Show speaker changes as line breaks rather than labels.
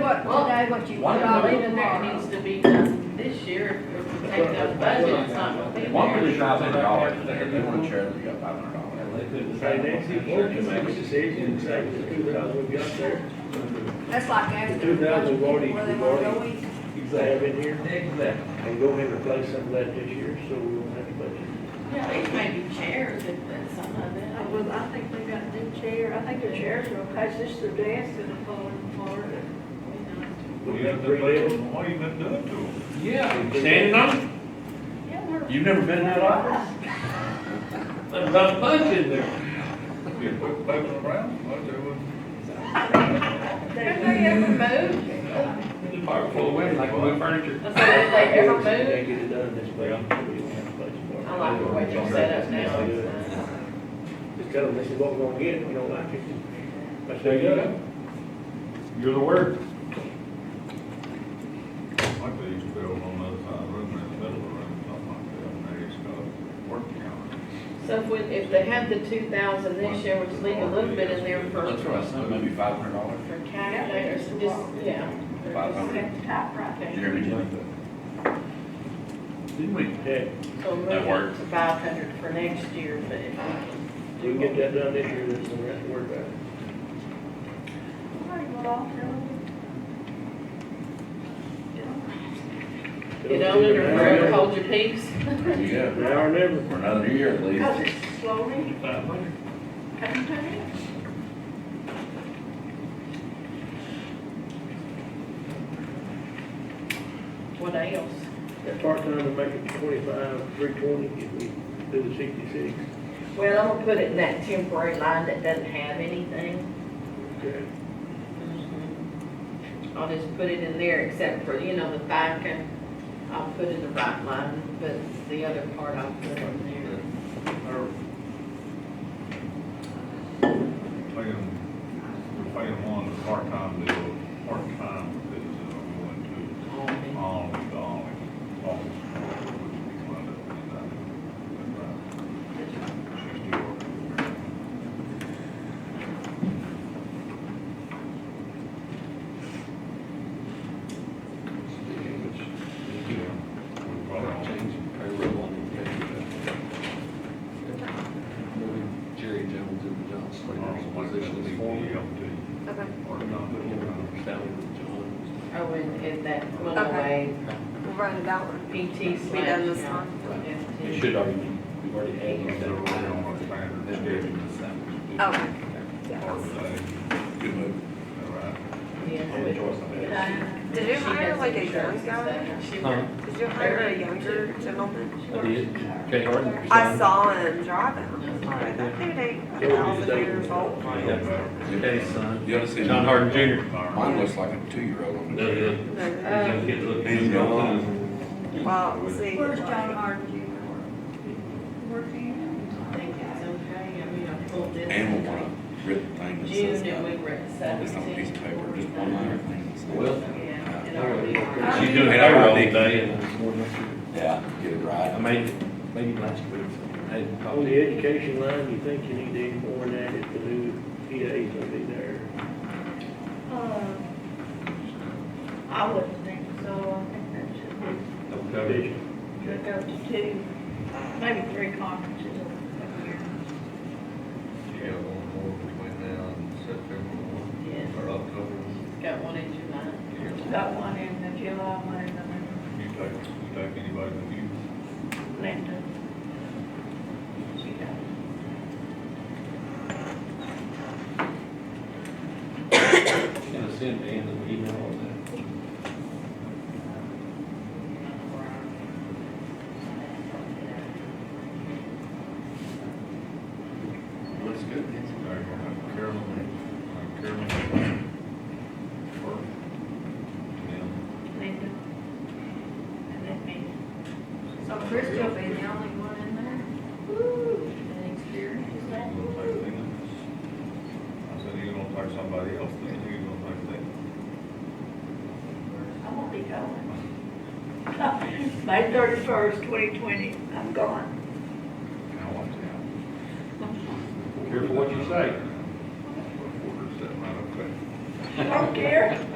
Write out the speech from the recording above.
what, today what you
One
put
of
all
the-
in
That
tomorrow.
needs to be done this year, if we take that budget, it's not gonna be
One
there.
fifty thousand dollars, if they wanna share, they got five hundred dollars.
Say next year, we'll make a decision, say the two thousand we got there,
That's like asking.
Two thousand
where
already-
they wanna go in.
they have in here,
Exactly.
and go ahead and replace some of that this year, so we won't have to budget.
Yeah, these may be chairs, if that's something like
Uh,
that.
Well, I think they got a new chair, I think the chairs are okay, it's just the desk and the floor and floor.
We have to play them, what you been doing to them?
Yeah, standing on,
Yeah, we're.
it? you've never been in that office? There's about a punch in there.
We put paper around, what they would.
Have they ever moved?
The bar full of women, like wood furniture.
I said, if they ever move,
They get it done this way, we don't have to budget for it.
I like the way you're set up now. It's nice.
Just tell them this is what we're gonna get, if you don't like it. That's
There you go. You're the word.
Like they used to build on the other side of the room, in the middle of the room, something like that, and they just got a work counter.
So if we, if they have the two thousand this year, we just leave a little bit in there for,
That's what I said, maybe five hundred dollars.
for calculators, and just, yeah.
Five hundred.
Okay.
Jeremy, did Didn't we?
Yeah,
So move
That
it
works.
to five hundred for next year, but if we can.
we can get that done this year, that's the rest work out.
Get on it or forever hold your peace.
Yeah,
Now or never.
for another year at least.
Cause it's slowly coming to me.
What else?
That part-time to make it twenty-five, three twenty, if we do the sixty-six.
Well, I'm gonna put it in that temporary line that doesn't have anything.
Okay.
Mm-hmm. I'll just put it in there except for, you know, the back and I'll put in the right line, but the other part I'll put in
They're Paying, we're paying one the part-time deal, part-time is, uh, going
there.
to
on me.
all, all, all, which we find out in that, in that sixty or. We probably all-
payroll on the Moving Jerry Jones into John Slater's position as foreman.
Okay. Or not,
Put him on salary with John.
Oh, and, and that went
Okay.
away,
We'll run it out.
PT slash.
We done this
yeah,
time?
FT.
It should already be, we've already had it.
They're already on a standard schedule.
Okay.
Or they,
Good move.
all right.
Yeah.
Good choice, I bet.
Did you
She
hire
has
like a
insurance
young guy?
and stuff. She
Huh?
worked-
Did you hire a younger gentleman?
I did, Kay Harden.
I saw him driving. I was like, that dude ain't a thousand years old.
Kay's son,
You ought to see.
John Harden Jr.
Mine looks like a two-year-old on the.
No.
He's young.
Well, see.
Where's John Harden Jr.? Working.
I think it's okay, I mean, I pulled this.
And we want a written thing that says
June and
that.
we were at
It's not a piece
seventeen.
of Uh, paper, just one liner thing. that says
Well-
that.
Yeah, it already.
She's doing
And I
payroll
think-
today and I'm more than sure.
Yeah, get it right.
I made, it- made it last week, so I had to
On
call
the
it.
education line, you think you need any more than that if the new PA's gonna be there?
Uh, I wouldn't think so, I think that should be,
Don't cover it.
should go to two, maybe three conferences a year.
Yeah, one more between now and September
Yes,
or October.
got one in July.
Got one in the July, one in the
You take, you take anybody with you.
Linda. She got
Gonna send Dan an email on that.
Looks good.
Now you're gonna have Carolyn, uh, Carolyn. Or, and
Linda. And then me.
So Chris will be the only one in there?
And experience that.
then you gonna take them. I said, you're gonna take somebody else, then you're gonna take them.
I won't be going. May thirty-first, twenty twenty, I'm gone.
Now watch out.
Careful what you say.
Orders that might affect.
I don't care.